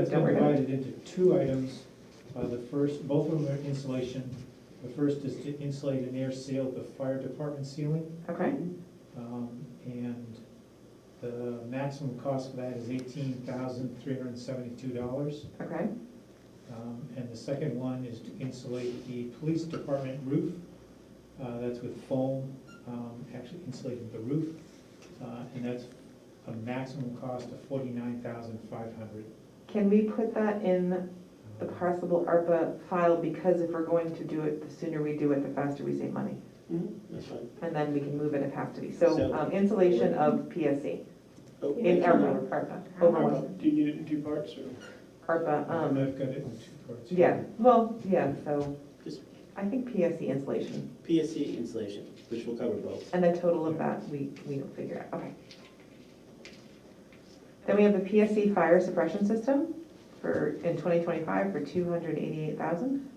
It's been divided into two items. Uh, The first, both of them are insulation. The first is to insulate and air seal the fire department ceiling. Okay, Mm-hmm. um, And the maximum cost for that is eighteen thousand three hundred and seventy-two dollars. Um, okay, And the second one is to insulate the police department roof. Uh, That's with foam, um, actually insulating the roof. Uh, And that's a maximum cost of forty-nine thousand five hundred. Um, can we put that in the possible ARPA file, because if we're going to do it, the sooner we do it, the faster we save money, That's fine. and then we can move it if have to be, so So- um, insulation of PSC, Oh, in that's ARPA, fine. ARPA, How overall, about- Do you need it in two parts or ARPA, Um, um, I've got it in two parts. yeah, well, yeah, so, just I think PSC insulation, PSC insulation, which will cover both? and the total of that, we, we will figure out, okay. Then we have the PSC fire suppression system for, in twenty twenty-five, for two hundred eighty-eight thousand,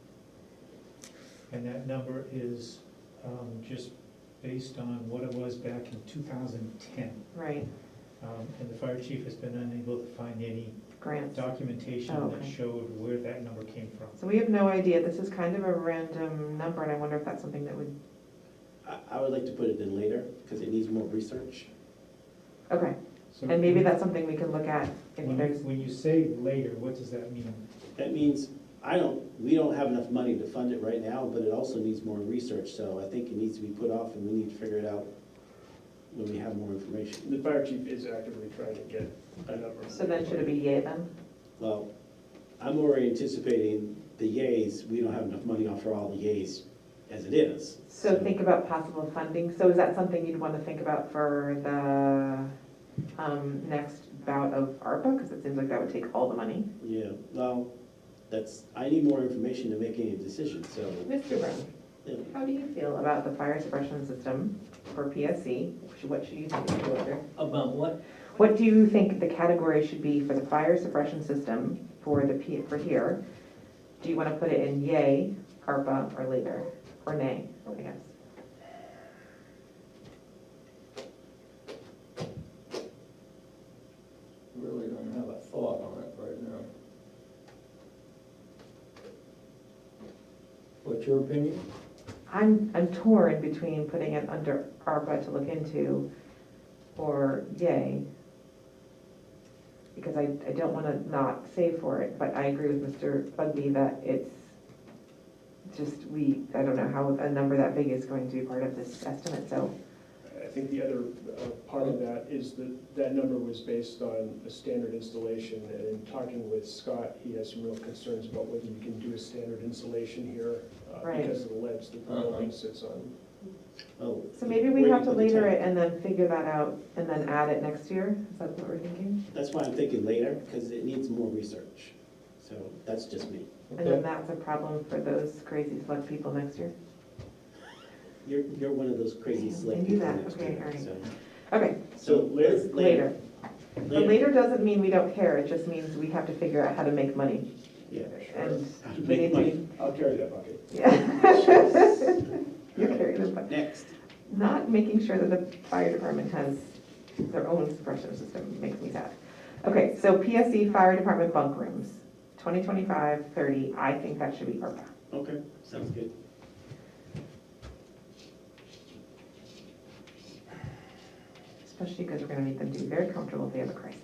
And that number is um, just based on what it was back in two thousand ten. Um, right, And the fire chief has been unable to find any grants. Oh, documentation that okay. showed where that number came from. So we have no idea, this is kind of a random number, and I wonder if that's something that would, I, I would like to put it in later, because it needs more research. okay, So and maybe that's something we can look at if When there's, when you say later, what does that mean? That means, I don't, we don't have enough money to fund it right now, but it also needs more research, so I think it needs to be put off, and we need to figure it out when we have more information. The fire chief is actively trying to get a number. so then should it be yay then? Well, I'm already anticipating the yays, we don't have enough money for all the yays as it is. So think about possible funding, so is that something you'd want to think about for the um, next bout of ARPA? Because it seems like that would take all the money. Yeah, well, that's, I need more information to make any decision, so, Mr. Brown, yeah. how do you feel about the fire suppression system for PSC? What should you think of the order? About what? What do you think the category should be for the fire suppression system for the, P- for here? Do you want to put it in yay, ARPA, or later, or nay, I guess? really don't have a thought on it right now. What's your opinion? I'm, I'm torn between putting it under ARPA to look into or yay. Because I, I don't want to not save for it, but I agree with Mr. Bugby that it's just, we, I don't know how a number that big is going to be part of this estimate, so. I think the other uh, part of that is that that number was based on a standard installation. And in talking with Scott, he has some real concerns about whether you can do a standard installation here uh, Right. because of the ledge that the Uh-huh. building sits on. Oh, So maybe we have to waiting for later the time. it and then figure that out and then add it next year, is that what we're thinking? That's why I'm thinking later, because it needs more research. So that's just me. And then that's a problem for those crazy select people next year. You're, you're one of those crazy Damn, I select knew people that. next Okay, all year, right. so. Okay, So later- later. later. But later doesn't mean we don't care, it just means we have to figure out how to make money. Yeah. And How to we make need to, money. I'll carry that bucket. yeah. You're carrying the, bu- Next, not making sure that the fire department has their own suppression system makes me sad. Okay, so PSC Fire Department bunk rooms, 2025, 30, I think that should be ARPA. okay, sounds good. Especially because we're gonna make them do very comfortable if they have a crisis.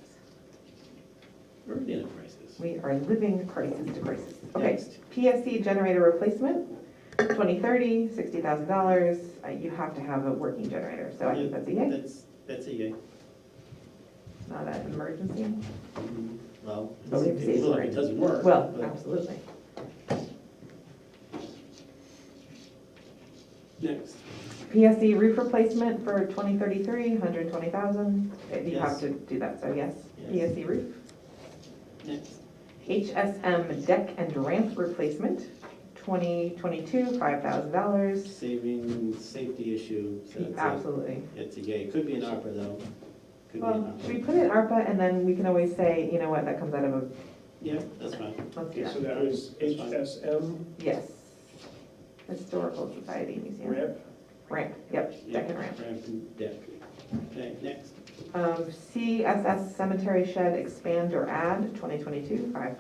We're in a crisis. We are living crisis to crisis. Okay, Next, PSC generator replacement, 2030, $60,000. Uh, You have to have a working generator, so I think that's a yay, that's, that's a yay. It's not an emergency. Mhm. Well, it's- But we have to it's save not for like it. it doesn't work. Well, uh, but- absolutely. Next, PSC roof replacement for 2033, $120,000. Uh, You have Yes. to do that, so yes, Yes. PSC roof. next, HSM deck and ramp replacement, 2022, $5,000. saving, safety issue, so that's a, Absolutely. it's a yay. Could be an opera though. Could be an Well, opera. should we put it in ARPA and then we can always say, you know what, that comes out of a, Yeah, that's fine. let's do Okay, that. so that was That's fine. HSM Yes. Historical Society Museum. ramp. Ramp, yep, deck and ramp. Ramp and deck. Okay, next. Um, CSS cemetery shed expand or add, 2022, 5,000.